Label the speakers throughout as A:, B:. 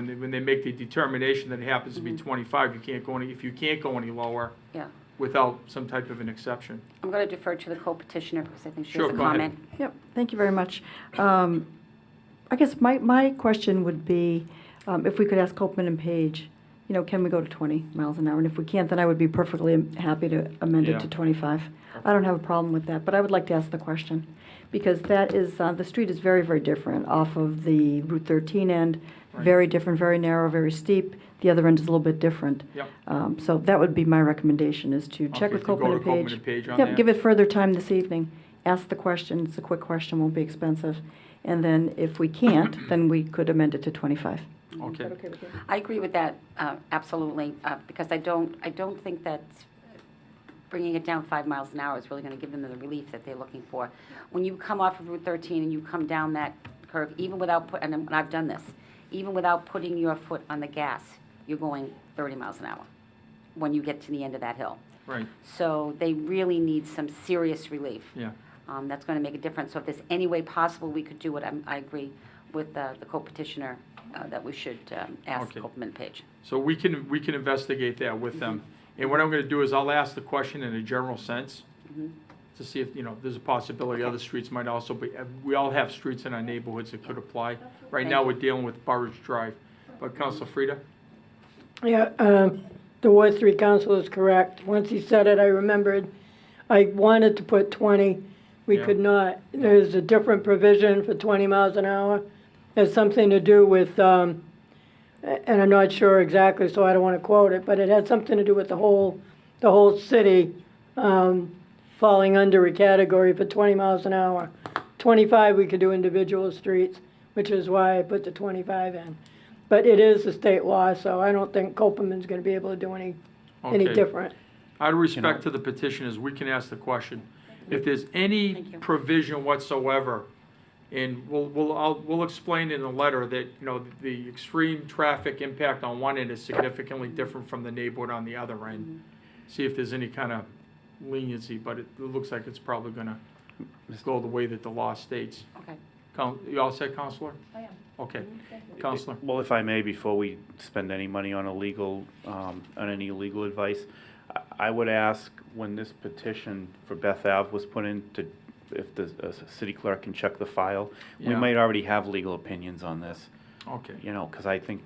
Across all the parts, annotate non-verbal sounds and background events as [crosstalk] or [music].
A: When they, when they make the determination that it happens to be
B: Mm-hmm.
A: twenty-five, you can't go any, if you can't go any lower
C: Yeah,
A: without some type of an exception.
C: I'm going to defer to the co-petitioner because I think she
A: Sure,
C: has a
A: go ahead.
C: comment.
B: Yep, thank you very much. Um, I guess my, my question would be, um, if we could ask Copman and Page, you know, can we go to 20 miles an hour? And if we can't, then I would be perfectly happy to amend
A: Yeah.
B: it to 25. I don't have a problem with that, but I would like to ask the question, because that is, uh, the street is very, very different off of the Route 13 end,
A: Right.
B: very different, very narrow, very steep. The other end is a little bit different.
A: Yep.
B: Um, So that would be my recommendation, is to check
A: Okay,
B: with
A: to go
B: Copman
A: to
B: and Page.
A: Copman and Page on that.
B: Yep, give it further time this evening. Ask the question, it's a quick question, won't be expensive. And then if we
A: [coughs]
B: can't, then we could amend it to 25.
A: Okay.
C: Mm-hmm. I agree with that, uh, absolutely, uh, because I don't, I don't think that bringing it down five miles an hour is really going to give them the relief that they're looking for. When you come off of Route 13 and you come down that curve, even without, put- and I'm- and I've done this, even without putting your foot on the gas, you're going 30 miles an hour when you get to the end of that hill.
A: Right,
C: So they really need some serious relief.
A: yeah.
C: Um, That's going to make a difference. So if there's any way possible we could do it, I'm- I agree with uh, the co-petitioner uh, that we should um, ask
A: Okay.
C: Copman Page.
A: So we can, we can investigate that with them.
B: Mm-hmm.
A: And what I'm gonna do is I'll ask the question in a general sense
B: Mm-hmm.
C: Mhm.
A: to see if, you know, there's a possibility other streets might also be, uh, we all have streets in our neighborhoods that could apply. Right now,
C: Thank
A: we're dealing with Burridge Drive. But Council
B: Mm-hmm.
A: Frida?
D: Yeah, um, the Ward Three Council is correct. Once he said it, I remembered, I wanted to put twenty. We
A: Yeah.
D: could not. There's a different provision for twenty miles an hour. Has something to do with, um, a- and I'm not sure exactly, so I don't want to quote it, but it had something to do with the whole, the whole city, um, falling under a category for twenty miles an hour. Twenty-five, we could do individual streets, which is why I put the twenty-five in. But it is a state law, so I don't think Copeland's gonna be able to do any, any
A: Okay.
D: different.
A: Out of respect to the petitioners, we can ask the question. If there's any
C: Thank you.
A: provision whatsoever, and we'll, we'll, I'll, we'll explain in the letter that, you know, the extreme traffic impact on one end is significantly different from the neighborhood on the other
C: Mm-hmm.
A: end. See if there's any kind of leniency, but it, it looks like it's probably gonna go the way that the law states.
C: Okay.
A: Coun- You all set, Counselor?
C: I am.
A: Okay, Counselor?
E: Well, if I may, before we spend any money on illegal, um, on any legal advice, I- I would ask, when this petition for Beth Ave was put in, to, if the uh, s- city clerk can check the file, we
A: Yeah.
E: might already have legal opinions on this,
C: Mm-hmm.
A: Okay,
E: you know, because I think,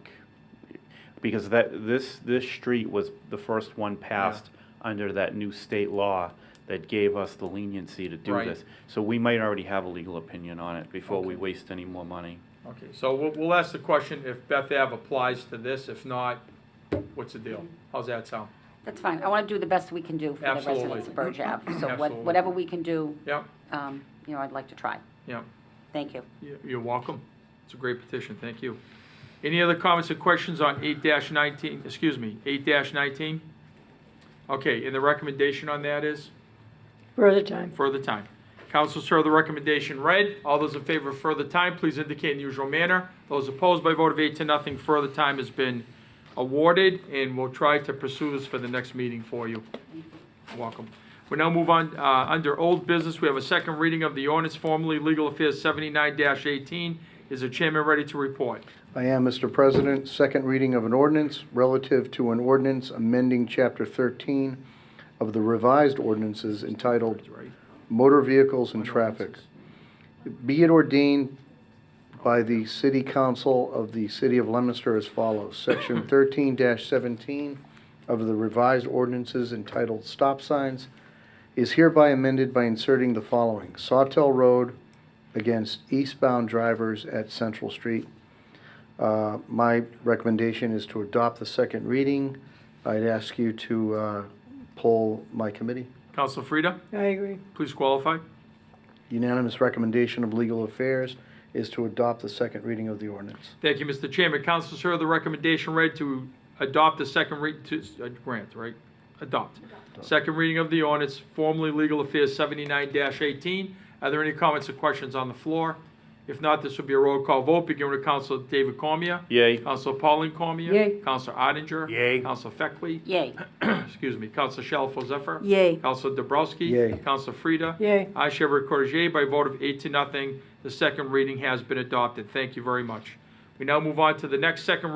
E: because that, this, this street was the first one passed under that new state law that gave us the leniency to do
A: Right.
E: this. So we might already have a legal opinion on it before we
A: Okay.
E: waste any more money.
A: okay, so we'll, we'll ask the question if Beth Ave applies to this, if not, what's the
C: Mm-hmm.
A: deal? How's that sound?
C: That's fine. I want to do the best we can do for the
A: Absolutely.
C: residents of Burge Ave. So what-
A: Absolutely.
C: whatever we can do,
A: Yep,
C: um, you know, I'd like to try.
A: yep.
C: Thank you.
A: You- You're welcome. It's a great petition, thank you. Any other comments or questions on eight nineteen, excuse me, eight nineteen? Okay, and the recommendation on that is
D: Further time.
A: further time. Councilors heard the recommendation read. All those in favor of further time, please indicate in the usual manner. Those opposed by a vote of eight to nothing, further time has been awarded, and we'll try to pursue this for the next meeting for you. Welcome. We now move on, uh, under old business, we have a second reading of the ordinance formerly Legal Affairs seventy-nine eighteen. Is the chairman ready to report?
F: I am, Mr. President. Second reading of an ordinance relative to an ordinance amending Chapter 13 of the revised ordinances entitled Motor Vehicles and Traffic. Be it ordained by the City Council of the City of Leominster as follows. Section 13-17 of the revised ordinances entitled Stop Signs is hereby amended by inserting the following. Sawtell Road against eastbound drivers at Central Street. Uh, My recommendation is to adopt the second reading. I'd ask you to uh, poll my committee.
A: Counsel Frida,
D: I agree.
A: please qualify.
F: Unanimous recommendation of Legal Affairs is to adopt the second reading of the ordinance.
A: Thank you, Mr. Chairman. Councilors heard the recommendation read to adopt the second read, to, uh, grant, right? Adopt. Second reading of the ordinance, formerly Legal Affairs seventy-nine eighteen. Are there any comments or questions on the floor? If not, this will be a roll call vote, beginning with Council David Cormier.
E: Yay.
A: Council Pauline Cormier.
D: Yay.
A: Council Odinger.
E: Yay.
A: Council Feckley. [coughs]
C: Yay.
A: Excuse me. Council Shalfo Zephyr.
B: Yay.
A: Council Dobrowski.
F: Yay.
A: Council Frida.
D: Yay.
A: I shall record yea by vote of eight to nothing. The second reading has been adopted. Thank you very much. We now move on to the next second